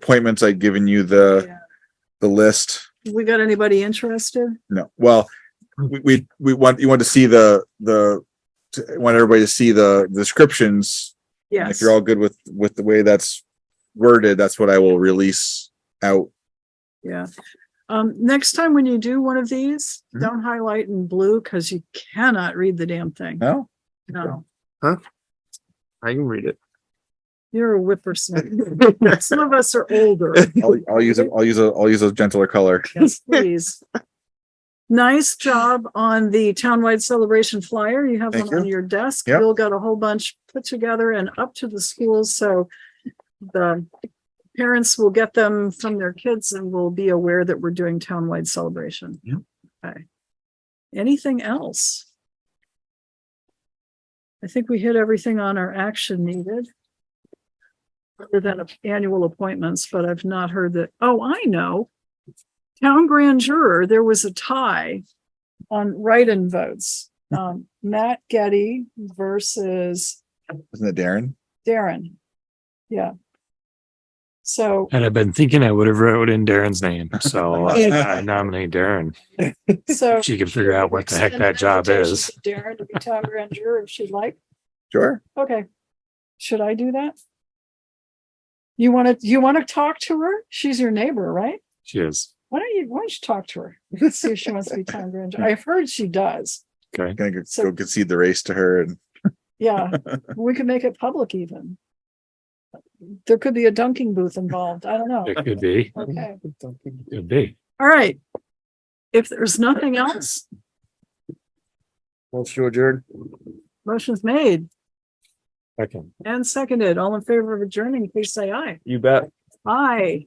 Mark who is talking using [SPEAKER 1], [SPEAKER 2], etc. [SPEAKER 1] appointments, I'd given you the,
[SPEAKER 2] Yeah.
[SPEAKER 1] the list.
[SPEAKER 2] We got anybody interested?
[SPEAKER 1] No, well, we, we, we want, you want to see the, the, to- want everybody to see the descriptions. And If
[SPEAKER 2] Yes.
[SPEAKER 1] you're all good with, with the way that's worded, that's what I will release out.
[SPEAKER 2] Yeah. Um, next time when you do one of these,
[SPEAKER 1] Mhm.
[SPEAKER 2] don't highlight in blue because you cannot read the damn thing.
[SPEAKER 1] No?
[SPEAKER 2] No,
[SPEAKER 3] I can read it.
[SPEAKER 2] you're a whippersnapper. Some of us are older.
[SPEAKER 1] I'll, I'll use, a- I'll use a, I'll use a gentler color.
[SPEAKER 2] Yes, please. Nice job on the townwide celebration flyer. You have
[SPEAKER 1] Thank
[SPEAKER 2] one on
[SPEAKER 1] you.
[SPEAKER 2] your desk.
[SPEAKER 1] Yep.
[SPEAKER 2] Bill got a whole bunch put together and up to the schools, so the parents will get them from their kids and will be aware that we're doing townwide celebration.
[SPEAKER 3] Yep.
[SPEAKER 2] Okay. Anything else? I think we hit everything on our action needed. Other than annual appointments, but I've not heard that. Oh, I know town grand juror, there was a tie on write-in votes. Um, Matt Getty versus
[SPEAKER 1] Isn't it Darren?
[SPEAKER 2] Darren. Yeah. So,
[SPEAKER 3] And I've been thinking I would have wrote in Darren's name, so I I nominate Darren.
[SPEAKER 2] so.
[SPEAKER 3] If she can figure out what the heck that job is.
[SPEAKER 2] Darren to be town grand juror if she'd like.
[SPEAKER 1] Sure.
[SPEAKER 2] Okay. Should I do that? You want to, you want to talk to her? She's your neighbor, right?
[SPEAKER 3] She is.
[SPEAKER 2] Why don't you, why don't you talk to her? See if she wants to be town grand. juror. I've heard she does.
[SPEAKER 3] Okay.
[SPEAKER 1] Gonna go-
[SPEAKER 2] So-
[SPEAKER 1] go concede the race to her and
[SPEAKER 2] Yeah, we could make it public even. There could be a dunking booth involved. I don't know.
[SPEAKER 3] It could be.
[SPEAKER 2] Okay,
[SPEAKER 3] Could be.
[SPEAKER 2] all right. If there's nothing else,
[SPEAKER 3] Well, sure, Jared.
[SPEAKER 2] motion's made
[SPEAKER 3] Second.
[SPEAKER 2] and seconded. All in favor of adjourning, please say aye.
[SPEAKER 3] You bet.
[SPEAKER 2] Aye.